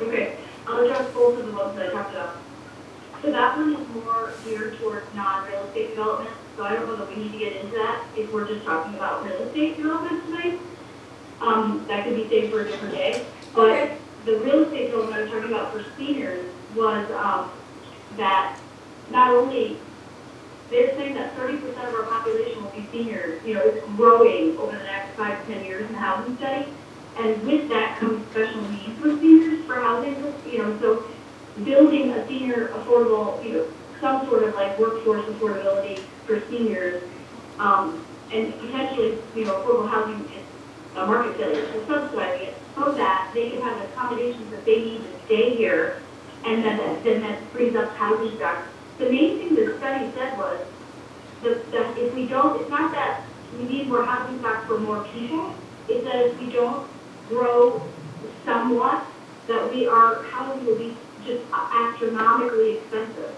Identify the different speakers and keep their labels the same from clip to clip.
Speaker 1: Okay, I'll address both of the ones that I talked about. So that one is more geared towards non-real estate development, so I don't know that we need to get into that if we're just talking about real estate development tonight. Um, that could be saved for a different day, but
Speaker 2: Okay,
Speaker 1: the real estate development I was talking about for seniors was, um, that not only, they're saying that thirty percent of our population will be seniors, you know, it's growing over the next five to ten years in the housing study. And with that comes special needs for seniors for housing, you know, so building a senior affordable, you know, some sort of like workforce affordability for seniors, um, and potentially, you know, affordable housing is a market failure, and subsidizing it, so that they can have the accommodations that they need to stay here, and then, that- then that frees up housing stock. The main thing the study said was, that, that if we don't, it's not that we need more housing stock for more people, it's that if we don't grow somewhat, that we are, housing will be just astronomically expensive.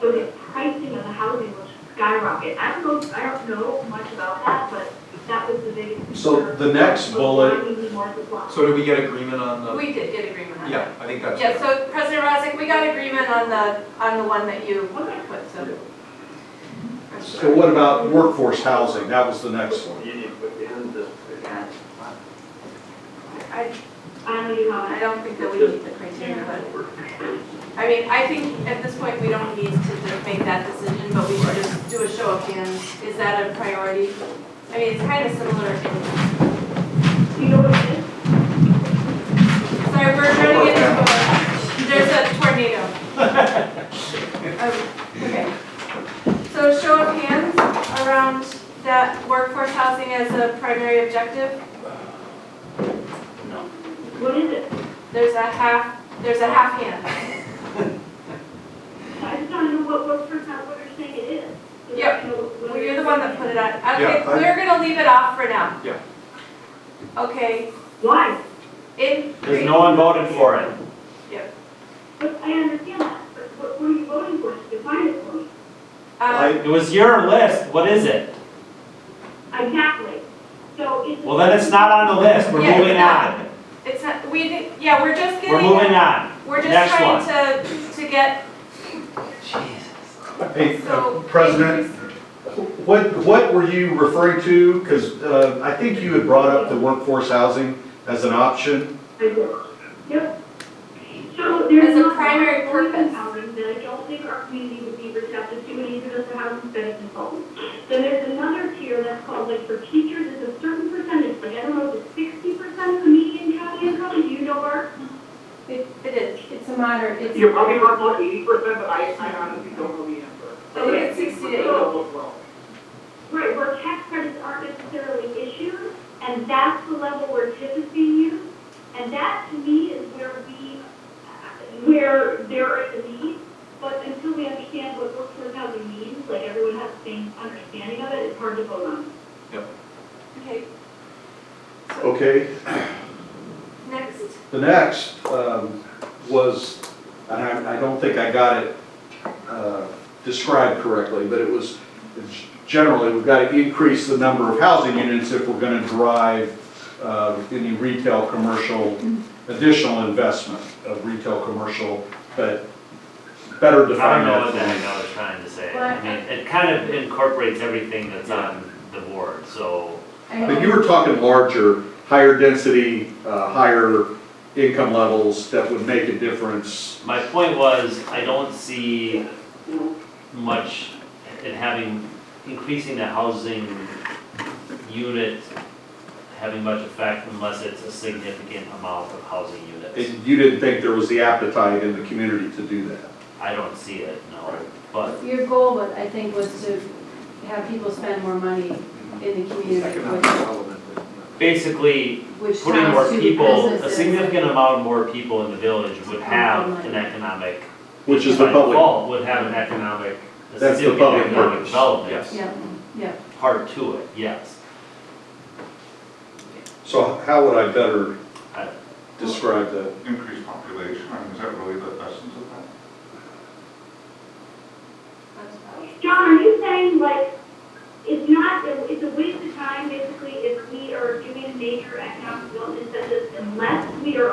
Speaker 1: So the pricing of the housing will skyrocket. I don't know, I don't know much about that, but that was the biggest concern.
Speaker 3: So the next bullet,
Speaker 1: We need more supply.
Speaker 4: So did we get agreement on the,
Speaker 2: we did get agreement on
Speaker 4: yeah,
Speaker 2: that.
Speaker 4: I think that's.
Speaker 2: Yeah, so President Rosick, we got agreement on the, on the one that you
Speaker 1: Okay.
Speaker 2: put, so. I'm
Speaker 3: so what about workforce housing? That was the next one.
Speaker 5: You need to put in the,
Speaker 2: Yeah. I,
Speaker 1: I don't know, you know,
Speaker 2: I
Speaker 1: I-
Speaker 2: don't think that we meet the criteria, but, I mean, I think at this point, we don't need to just make that decision, but we should just do a show of hands. Is that a priority? I mean, it's kind of similar.
Speaker 1: you know what it is?
Speaker 2: Sorry, we're trying to get into a, there's a tornado. Um, Okay. So show of hands around that workforce housing as a primary objective?
Speaker 1: What is it?
Speaker 2: There's a half, there's a half hand.
Speaker 1: I just don't know what, what first, not what you're saying it is. So I
Speaker 2: Yeah,
Speaker 1: don't know what
Speaker 2: Well, you're the one that put it on. Okay,
Speaker 4: Yeah, I-
Speaker 2: we're gonna leave it off for now.
Speaker 4: Yeah.
Speaker 2: Okay,
Speaker 1: Why?
Speaker 2: in.
Speaker 6: Because no one voted for it.
Speaker 1: But I understand that, but what, what are you voting for? Define it for me.
Speaker 2: Um,
Speaker 6: It was your list, what is it?
Speaker 1: Exactly. So it's.
Speaker 6: Well, then it's not on the list, we're
Speaker 2: Yeah,
Speaker 6: moving
Speaker 2: it's not.
Speaker 6: on.
Speaker 2: It's not, we, did- yeah, we're just
Speaker 6: We're
Speaker 2: getting.
Speaker 6: moving on.
Speaker 2: We're
Speaker 6: Next
Speaker 2: just trying to, to get,
Speaker 3: Hey, uh,
Speaker 2: so.
Speaker 3: President, what, what were you referring to? Because I think you had brought up the workforce housing as an option.
Speaker 1: I do. Yep. So there's
Speaker 2: As a
Speaker 1: not
Speaker 2: primary
Speaker 1: enough working
Speaker 2: purpose.
Speaker 1: housing that I don't think our community would be receptive to, and even as a housing study consultant. Then there's another tier that's called like for teachers, it's a certain percentage, like I don't know, if it's sixty percent of the median county income, do you know, Mark?
Speaker 2: It it is, it's a moderate, it's.
Speaker 7: You're probably about more eighty percent, but I, I honestly don't know the answer.
Speaker 2: I think it's 60 to 80.
Speaker 7: Well,
Speaker 1: Right, where tax credits aren't necessarily issued, and that's the level where TIF is being used. And that to me is where we, where there is a need, but until we understand what workforce housing means, like everyone has the same understanding of it, it's hard to vote on.
Speaker 2: Okay,
Speaker 3: Okay,
Speaker 2: next.
Speaker 3: the next um, was, and I, I don't think I got it uh, described correctly, but it was, it's generally, we've got to increase the number of housing units if we're going to drive uh, any retail, commercial, additional investment of retail, commercial, but better
Speaker 6: I don't
Speaker 3: defined.
Speaker 6: know what the heck I was trying to say. I mean, it kind of incorporates everything that's on the board, so.
Speaker 3: But you were talking larger, higher density, uh, higher income levels that would make a difference.
Speaker 6: My point was, I don't see much in having, increasing the housing unit having much effect unless it's a significant amount of housing units.
Speaker 3: And you didn't think there was the appetite in the community to do that.
Speaker 6: I don't see it, no, but
Speaker 8: Your goal, was- I think, was to have people spend more money
Speaker 4: Mm-hmm.
Speaker 8: in the community,
Speaker 5: economic
Speaker 8: which-
Speaker 5: development, but, you know.
Speaker 6: basically,
Speaker 8: which
Speaker 6: putting more
Speaker 8: ties to
Speaker 6: people, a
Speaker 8: businesses.
Speaker 6: significant amount more people in the village would have an economic.
Speaker 3: Which is the
Speaker 6: by
Speaker 3: public-
Speaker 6: default, Would have an economic, a
Speaker 3: That's the
Speaker 6: significant
Speaker 3: public
Speaker 6: economic
Speaker 3: purpose.
Speaker 6: development
Speaker 8: Yeah, yeah.
Speaker 6: part to it, yes.
Speaker 3: So how would I better
Speaker 6: I-
Speaker 3: describe that?
Speaker 9: increased population, I mean, is that really the essence of that?
Speaker 1: John, are you saying like, it's not, it's a waste of time basically if we are doing major economic development incentives unless we are